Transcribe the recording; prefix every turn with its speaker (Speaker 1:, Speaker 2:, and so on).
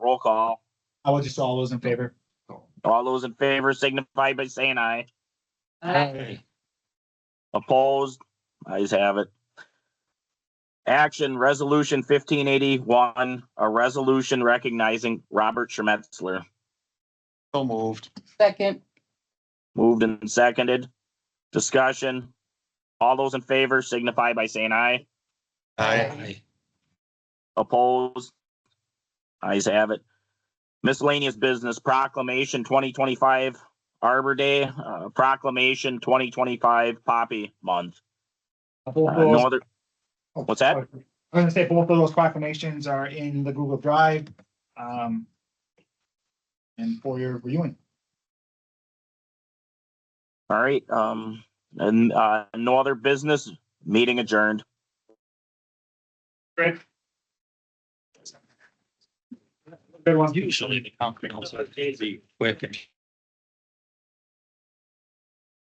Speaker 1: call.
Speaker 2: How about just all those in favor?
Speaker 1: All those in favor signify by saying aye.
Speaker 2: Aye.
Speaker 1: Opposed? Ayes have it. Action Resolution fifteen eighty-one, a resolution recognizing Robert Schmetzler.
Speaker 2: So moved.
Speaker 3: Second.
Speaker 1: Moved and seconded. Discussion. All those in favor signify by saying aye.
Speaker 3: Aye.
Speaker 1: Opposed? Ayes have it. Miscellaneous business proclamation twenty twenty-five Arbor Day, uh, proclamation twenty twenty-five Poppy Month. Uh, No other, what's that?
Speaker 2: I was gonna say both of those proclamations are in the Google Drive. Um. And for your viewing.
Speaker 1: All right, um, and, uh, no other business, meeting adjourned.
Speaker 2: Great. Good one.
Speaker 4: Usually the company was busy, quick.